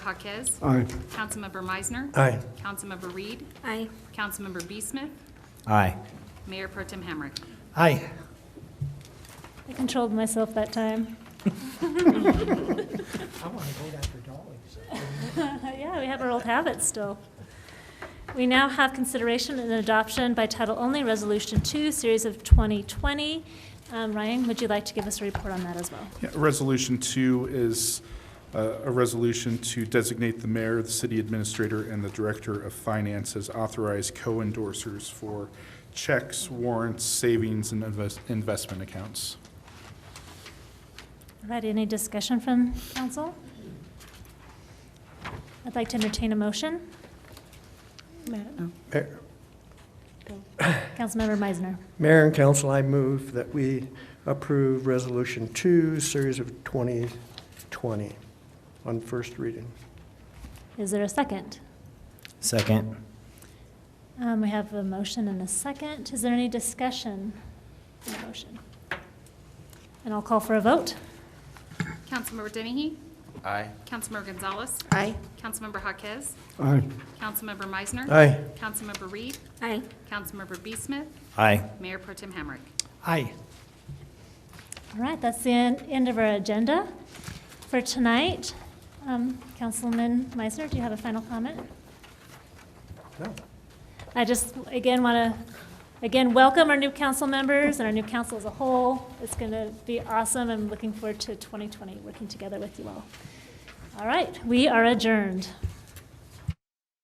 Jaquez. Aye. Councilmember Meisner. Aye. Councilmember Reed. Aye. Councilmember B. Smith. Aye. Mayor Pro Tem Hamrick. Aye. I controlled myself that time. I want to vote after Dolly. Yeah, we have our old habits still. We now have consideration and adoption by title only, Resolution 2, Series of 2020. Um, Ryan, would you like to give us a report on that as well? Yeah, Resolution two is uh, a resolution to designate the mayor, the city administrator, and the director of finance as authorized co-endorsers for checks, warrants, savings, and invest- investment accounts. All right, any discussion from council? I'd like to entertain a motion. Councilmember Meisner. Mayor and council, I move that we approve Resolution 2, Series of 2020, on first reading. Is there a second? Second. Um, We have a motion and a second. Is there any discussion on the motion? And I'll call for a vote. Councilmember Dennehy. Aye. Councilmember Gonzalez. Aye. Councilmember Jaquez. Aye. Councilmember Meisner. Aye. Councilmember Reed. Aye. Councilmember B. Smith. Aye. Mayor Pro Tem Hamrick. Aye. All right, that's the en- end of our agenda for tonight. Um, Councilman Meisner, do you have a final comment? No. I just, again, want to, again, welcome our new council members and our new council as a whole. It's going to be awesome. I'm looking forward to 2020, working together with you all. All right, we are adjourned.